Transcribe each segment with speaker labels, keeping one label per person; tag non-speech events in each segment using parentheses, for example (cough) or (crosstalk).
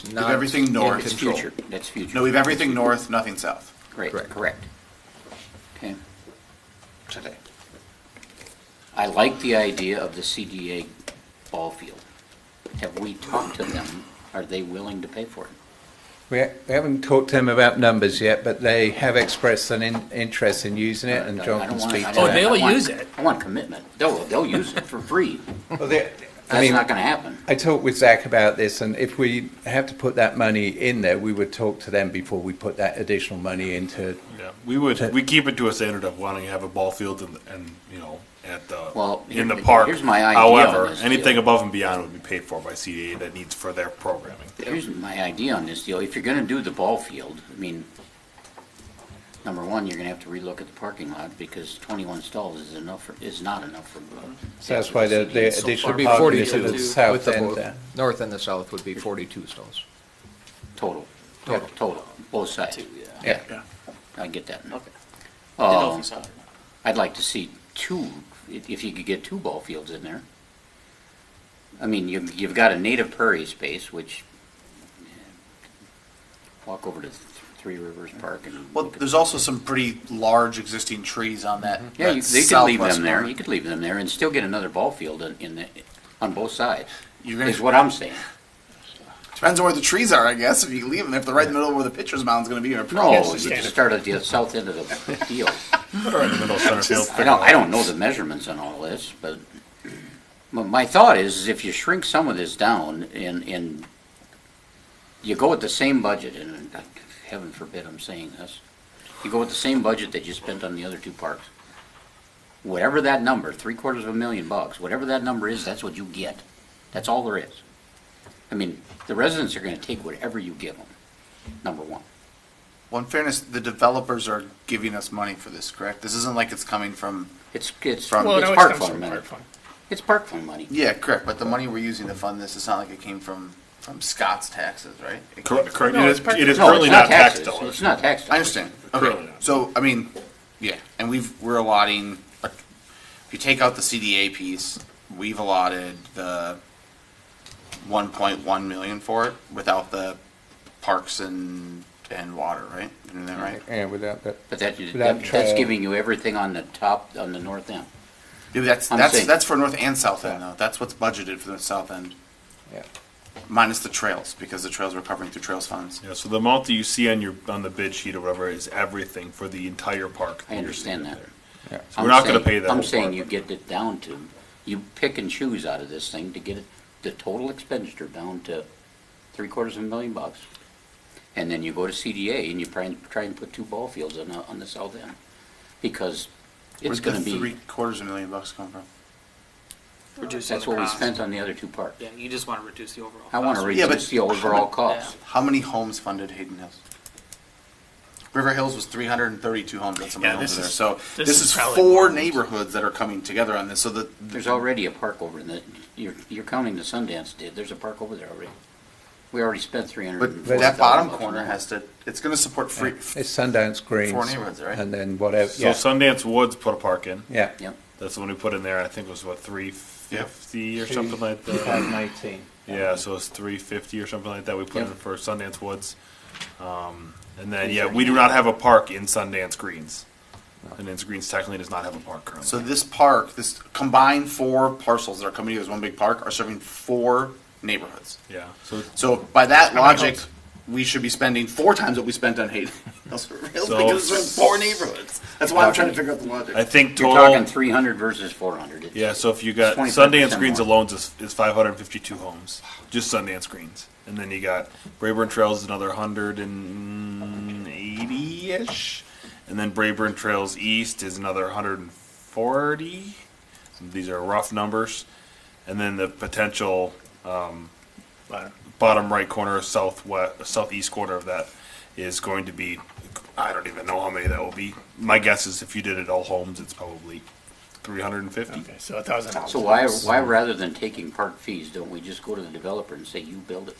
Speaker 1: It's
Speaker 2: We've
Speaker 1: not
Speaker 2: everything
Speaker 1: in
Speaker 2: north.
Speaker 1: That's
Speaker 2: control.
Speaker 1: future, that's future.
Speaker 2: No, we've everything north, nothing south
Speaker 1: Great,
Speaker 3: Correct.
Speaker 1: correct. Okay.
Speaker 2: today.
Speaker 1: I like the idea of the CDA ball field. Have we talked to them? Are they willing to pay for it?
Speaker 3: We ha- we haven't talked to them about numbers yet, but they have expressed an in- interest in using it, and
Speaker 1: I
Speaker 3: John
Speaker 1: don't
Speaker 3: can
Speaker 1: wanna-
Speaker 3: speak
Speaker 1: I
Speaker 3: to
Speaker 1: don't-
Speaker 4: Oh,
Speaker 1: I
Speaker 3: that.
Speaker 4: they'll
Speaker 1: want-
Speaker 4: use it.
Speaker 1: I want commitment. They'll, they'll use it for free.
Speaker 3: Well, they- I
Speaker 1: That's
Speaker 3: mean,
Speaker 1: not gonna happen.
Speaker 3: I talked with Zach about this, and if we have to put that money in there, we would talk to them before we put that additional money into.
Speaker 5: Yeah, we would, we keep it to a standard of wanting to have a ball field and, and, you know, at the,
Speaker 1: Well,
Speaker 5: in the
Speaker 1: here-
Speaker 5: park.
Speaker 1: here's my idea on
Speaker 5: However,
Speaker 1: this
Speaker 5: anything
Speaker 1: deal.
Speaker 5: above and beyond would be paid for by CDA that needs for their programming.
Speaker 1: Here's my idea on this deal. If you're gonna do the ball field, I mean, number one, you're gonna have to relook at the parking lot because twenty-one stalls is enough, for- is not enough for. uh,
Speaker 3: So that's why the, the
Speaker 4: So
Speaker 3: additional
Speaker 4: far.
Speaker 6: Be
Speaker 3: parking is at
Speaker 6: 42
Speaker 3: the
Speaker 6: with
Speaker 3: south
Speaker 6: the
Speaker 3: end
Speaker 6: both.
Speaker 3: there.
Speaker 6: North and the south would be 42 stalls.
Speaker 1: Total,
Speaker 3: Total.
Speaker 1: total, both sides.
Speaker 3: Yeah.
Speaker 2: Yeah.
Speaker 1: I get that.
Speaker 4: Okay.
Speaker 1: Um, I'd like to see two, if if you could get two ball fields in there. I mean, you've, you've got a native prairie space, which, walk over to Th- Three Rivers Park and.
Speaker 2: Well,
Speaker 1: look at-
Speaker 2: there's also some pretty large existing trees on that.
Speaker 1: Mm-hmm. Yeah,
Speaker 2: that
Speaker 1: you, they could leave
Speaker 2: southwest
Speaker 1: them there,
Speaker 2: corner.
Speaker 1: you could leave them there and still get another ball field in, in the, on both sides,
Speaker 2: You're gonna-
Speaker 1: is what I'm saying.
Speaker 2: Depends on where the trees are, I guess. If you leave them, if they're right in the middle of where the pitcher's mound's going to be, you're probably-
Speaker 1: No, you just start at the south end
Speaker 2: (laughs)
Speaker 1: of the field.
Speaker 5: Or in the middle of center field.
Speaker 1: I don't, I don't know the measurements on all this, but my, my thought is, is if you shrink some of this down and, and you go with the same budget, and uh, heaven forbid I'm saying this, you go with the same budget that you spent on the other two parks. Whatever that number, three quarters of a million bucks, whatever that number is, that's what you get. That's all there is. I mean, the residents are gonna take whatever you give them, number one.
Speaker 2: Well, in fairness, the developers are giving us money for this, correct? This isn't like it's coming from,
Speaker 1: It's, it's, it's
Speaker 2: From- Well, it
Speaker 4: always
Speaker 1: park
Speaker 4: comes
Speaker 1: fund
Speaker 4: from
Speaker 1: money.
Speaker 4: park fund.
Speaker 1: It's park fund money.
Speaker 2: yeah, correct, but the money we're using to fund this, it's not like it came from, from Scott's taxes, right? It came
Speaker 5: Correct,
Speaker 2: from-
Speaker 5: correct.
Speaker 4: No,
Speaker 5: It
Speaker 4: it's
Speaker 5: is,
Speaker 4: part-
Speaker 5: it is
Speaker 1: No,
Speaker 5: currently
Speaker 1: it's not
Speaker 5: not tax
Speaker 1: taxes. It's
Speaker 5: dollars.
Speaker 1: not tax
Speaker 2: I
Speaker 1: dollars.
Speaker 2: understand. Okay,
Speaker 5: Currently not.
Speaker 2: so, I mean, yeah, and we've, we're allotting, a- if you take out the CDA piece, we've allotted the one point one million for it without the parks and, and water, right? You know that, right?
Speaker 1: Mm-hmm.
Speaker 3: Yeah, without that.
Speaker 1: But that,
Speaker 3: Without
Speaker 1: that- that's
Speaker 5: uh,
Speaker 3: trail.
Speaker 1: giving you everything on the top, on the north end.
Speaker 2: Yeah, that's,
Speaker 1: I'm
Speaker 2: that's,
Speaker 1: saying-
Speaker 2: that's for north and south end though. That's what's budgeted for the south end,
Speaker 3: Yeah.
Speaker 2: minus the trails, because the trails we're covering through trails funds.
Speaker 5: Yeah, so the amount that you see on your, on the bid sheet or whatever is everything for the entire park.
Speaker 1: I understand that.
Speaker 3: Yeah.
Speaker 5: So
Speaker 1: I'm
Speaker 5: we're not gonna
Speaker 1: saying-
Speaker 5: pay that
Speaker 1: I'm
Speaker 5: whole
Speaker 1: saying
Speaker 5: part.
Speaker 1: you get it down to, you pick and choose out of this thing to get it- the total expenditure down to three quarters of a million bucks. And then you go to CDA and you try and, try and put two ball fields on the, on the south end. Because it's
Speaker 2: Where's
Speaker 1: gonna
Speaker 2: the
Speaker 1: be,
Speaker 2: three quarters of a million bucks come from?
Speaker 7: reducing
Speaker 1: that's
Speaker 7: the
Speaker 1: what we
Speaker 7: cost.
Speaker 1: spent on the other two parks.
Speaker 7: Yeah, you just want to reduce the overall.
Speaker 1: I wanna
Speaker 7: cost.
Speaker 2: Yeah, but
Speaker 1: reduce the overall cost.
Speaker 2: How many homes funded Hayden Hills? River Hills was three hundred and thirty-two homes, that's how many
Speaker 4: Yeah,
Speaker 2: homes
Speaker 4: this
Speaker 2: are there,
Speaker 4: is-
Speaker 2: so
Speaker 4: this
Speaker 2: this
Speaker 4: is
Speaker 2: is
Speaker 4: probably
Speaker 2: four
Speaker 4: more homes.
Speaker 2: neighborhoods that are coming together on this, so the,
Speaker 1: There's already a park over in the, you're, you're counting the Sundance did, there's a park over there already. We already spent three hundred and
Speaker 2: but
Speaker 1: forty thousand.
Speaker 2: that bottom corner has to, it's gonna support free,
Speaker 3: It's Sundance Greens.
Speaker 2: neighborhoods, right?
Speaker 3: And then whatever,
Speaker 5: So
Speaker 3: yeah,
Speaker 5: Sundance Woods put a park in.
Speaker 3: yeah.
Speaker 1: Yep,
Speaker 5: That's the one we put in there, I think it was what, three fifty or something like that?
Speaker 3: 2018.
Speaker 5: Yeah, so it's three fifty or something like that. We put
Speaker 1: Yep.
Speaker 5: in for Sundance Woods, um, and then yeah, we do not have a park in Sundance Greens. Sundance Greens technically does not have a park currently.
Speaker 2: So this park, this combined four parcels that are coming together as one big park are serving four neighborhoods.
Speaker 5: yeah, so
Speaker 2: So by that logic, we should be spending four times what we spent on Hayden (laughs) Hills for Hills
Speaker 5: So-
Speaker 2: because it's four neighborhoods. That's why I'm trying to figure out the
Speaker 5: I
Speaker 2: logic.
Speaker 5: think
Speaker 1: you're talking
Speaker 5: total.
Speaker 1: three hundred versus four hundred.
Speaker 5: Yeah, so if you got
Speaker 1: 25%
Speaker 5: Sundance Greens
Speaker 1: more.
Speaker 5: alone is, is five hundred fifty-two homes, just Sundance Greens, and then you got Brayburn Trails is another hundred and eighty-ish, and then Brayburn Trails East is another hundred and forty. These are rough numbers, and then the potential um, bottom right corner, southwest, southeast corner of that is going to be, I don't even know how many that will be. My guess is if you did it all homes, it's probably three hundred and fifty.
Speaker 4: Okay, so a thousand dollars.
Speaker 1: So why, why rather than taking park fees, don't we just go to the developer and say, you build it?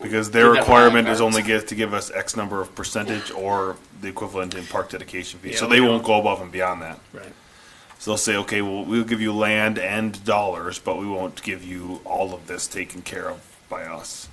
Speaker 5: Because their
Speaker 4: We've got
Speaker 5: requirement
Speaker 4: nine
Speaker 5: is
Speaker 4: parks.
Speaker 5: only get, to give us X number of percentage or the equivalent in park dedication fee. So
Speaker 4: Yeah,
Speaker 5: they
Speaker 4: we
Speaker 5: won't go above and beyond that.
Speaker 4: Right.
Speaker 5: So they'll say, okay, well, we'll give you land and dollars, but we won't give you all of this taken care of by us.